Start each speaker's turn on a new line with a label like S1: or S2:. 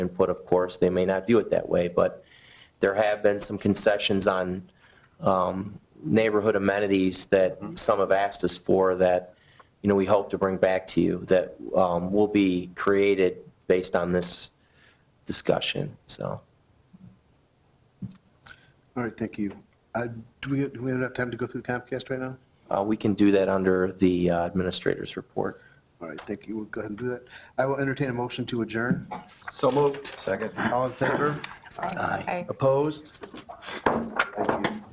S1: input, of course, they may not view it that way, but there have been some concessions on um, neighborhood amenities that some have asked us for that, you know, we hope to bring back to you that um, will be created based on this discussion, so.
S2: All right, thank you. Uh, Do we, do we have enough time to go through Comcast right now?
S1: uh, We can do that under the uh, administrator's report.
S2: All right, thank you. We'll go ahead and do that. I will entertain a motion to adjourn.
S3: So moved. Second.
S2: All in favor?
S4: Aye.
S2: Opposed? Thank you.